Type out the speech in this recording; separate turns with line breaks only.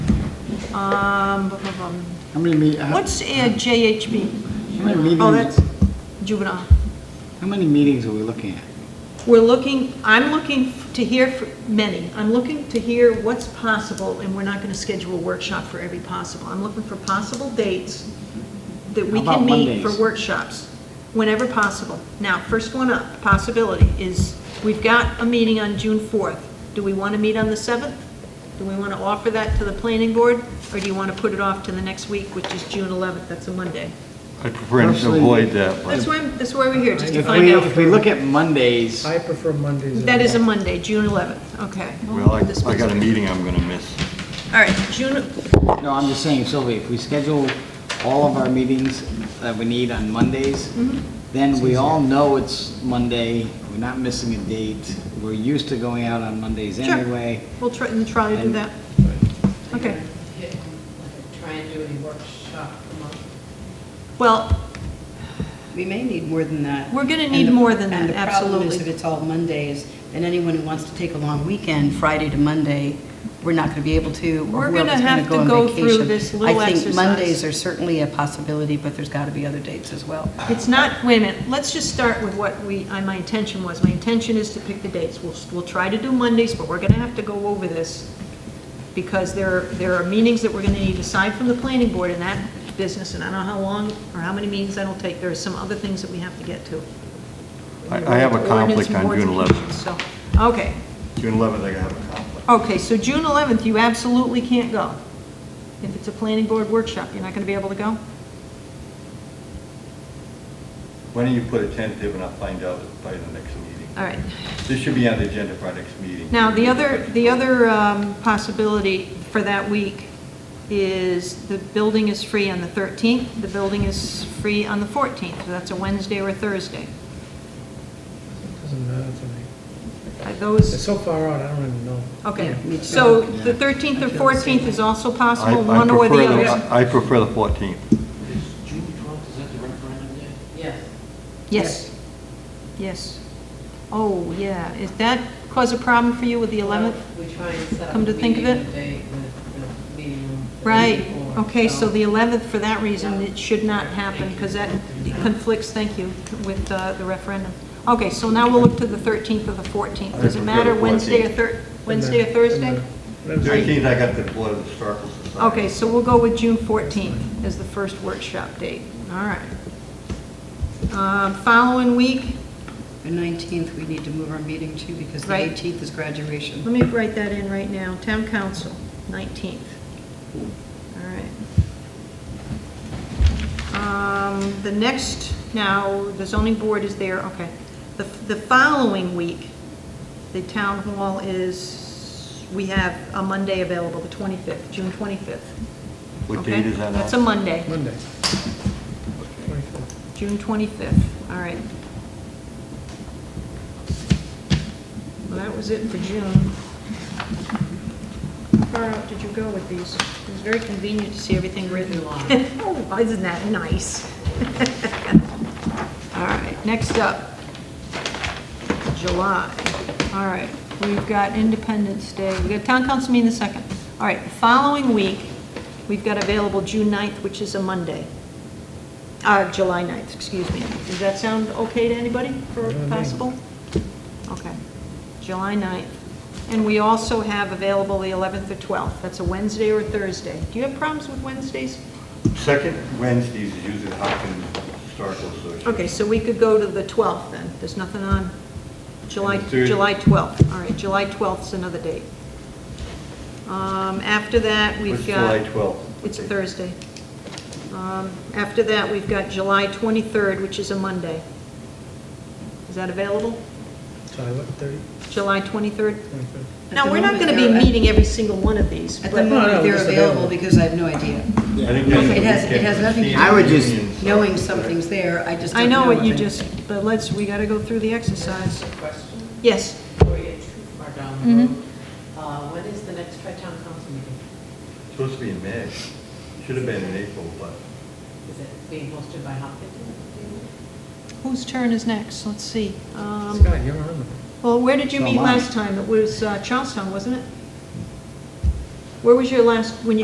Um, bum, bum, bum.
How many meet, how
What's uh, JHB?
how many
Oh, that's
meetings,
juvenile.
how many meetings are we looking at?
We're looking, I'm looking to hear, fr- many, I'm looking to hear what's possible, and we're not going to schedule a workshop for every possible. I'm looking for possible dates that we
How about
can meet for
Mondays?
workshops, whenever possible. Now, first one up, possibility, is we've got a meeting on June 4th. Do we want to meet on the 7th? Do we want to offer that to the planning board, or do you want to put it off to the next week, which is June 11th? That's a Monday.
I prefer to
Personally-
avoid that,
That's
but
why, that's why we're here, just to
If
find
we,
out.
if we look at Mondays,
I prefer Mondays.
That is a Monday, June 11th, okay.
well, I
This
I got a
one's-
meeting I'm going to miss.
All right, June,
no, I'm just saying, Sylvia, if we schedule all of our meetings that we need on Mondays,
Mm-hmm.
then we all know it's Monday, we're not missing a date, we're used to going out on Mondays
Sure.
anyway.
we'll try and try to do
And-
that. Okay.
Try and do a workshop a month.
Well,
We may need more than that.
We're gonna
And
need
the-
more than that,
And the problem
absolutely.
is if it's all Mondays, then anyone who wants to take a long weekend, Friday to Monday, we're not gonna be able to,
We're
or
gonna
whoever's gonna
have to
go on vacation.
go through this little
I
exercise.
think Mondays are certainly a possibility, but there's gotta be other dates as well.
it's not, wait a minute, let's just start with what we, I- my intention was. My intention is to pick the dates. We'll, we'll try to do Mondays, but we're going to have to go over this because there, are- there are meetings that we're going to need aside from the planning board in that business, and I don't know how long or how many meetings that'll take. There are some other things that we have to get to.
I I have a
Ordinance,
conflict on
boards,
June
and
11th.
commissions, So, okay,
June 11th, I have a conflict.
Okay, so June 11th, you absolutely can't go. If it's a planning board workshop, you're not going to be able to go?
Why don't you put a tentative and I'll find out by the next meeting?
All right.
This should be on the agenda for our next meeting.
Uh, Now, the other, the other um, possibility for that week is the building is free on the 13th, the building is free on the 14th, so that's a Wednesday or a Thursday.
Doesn't matter to me.
Are
It's
those,
so far out, I don't even know.
okay,
Yeah, me too.
so the 13th or 14th is also
I-
possible,
I
one or the
prefer
other.
I prefer the 14th.
Is June twelfth, is that the referendum day?
Yes.
Yes, yes. Oh, yeah, is that cause a problem for you with the 11th?
We try and set up
Come to
a
think of
meeting
it?
date with the meeting room the
Right,
day before,
okay, so the 11th, for that reason, it should not happen, because that conflicts, thank you, with uh, the referendum. Okay, so now we'll look to the 13th or the 14th. Does it
I prefer
matter
the
Wednesday or
14th.
Thur, Wednesday or Thursday?
Thursday?
13th, I got the Board of Historical Society.
Okay, so we'll go with June 14th as the first workshop date, all right. Um, Following week,
The 19th, we need to move our meeting too, because the
Right.
18th is graduation.
let me write that in right now, town council, 19th. All right. Um, The next, now, the zoning board is there, okay. The the following week, the town hall is, we have a Monday available, the 25th, June 25th.
What
okay?
date is that on?
That's a Monday,
Monday. 25th.
June 25th, all right. Well, that was it for June. How far out did you go with these? It was very convenient to see everything written. Oh, isn't that nice? All right, next up, July. All right, we've got Independence Day, we've got Town Council meeting the second. All right, the following week, we've got available June 9th, which is a Monday. Uh, July 9th, excuse me. Does that sound okay to anybody for
Yeah, I mean.
possible? Okay, July 9th. And we also have available the 11th or 12th. That's a Wednesday or a Thursday. Do you have problems with Wednesdays?
Second Wednesdays is usually the Hopkins Historical Association.
Okay, so we could go to the 12th then. There's nothing on July,
And the third-
July 12th. All right, July 12th's another date. Um, After that,
What's
we've got...
July 12th?
It's a Thursday. Um, After that, we've got July 23rd, which is a Monday. Is that available?
July what, 30,
July 23rd?
25th?
Now, we're not going to be meeting every single one of these,
At the
but,
No, no,
moment, they're
just
available
available.
because I have no idea.
I think that's
It
the
has- it
weekend
has
for
nothing to do
senior
I would just-
unions.
Knowing something's there, I just
I
don't know.
know what you
if it-
just, but let's, we got to go through the exercise.
Just a question,
Yes,
before you get too far down the road.
Mm-hmm.
Uh, When is the next tri-town council meeting?
Supposed to be in May. Should have been in April, but
Is it being hosted by Hopkins?
whose turn is next? Let's see. Um,
Scott, you're on
Well, where did you
So
meet
am I.
last time? It was uh, Charlestown, wasn't it? Where was your last, when you?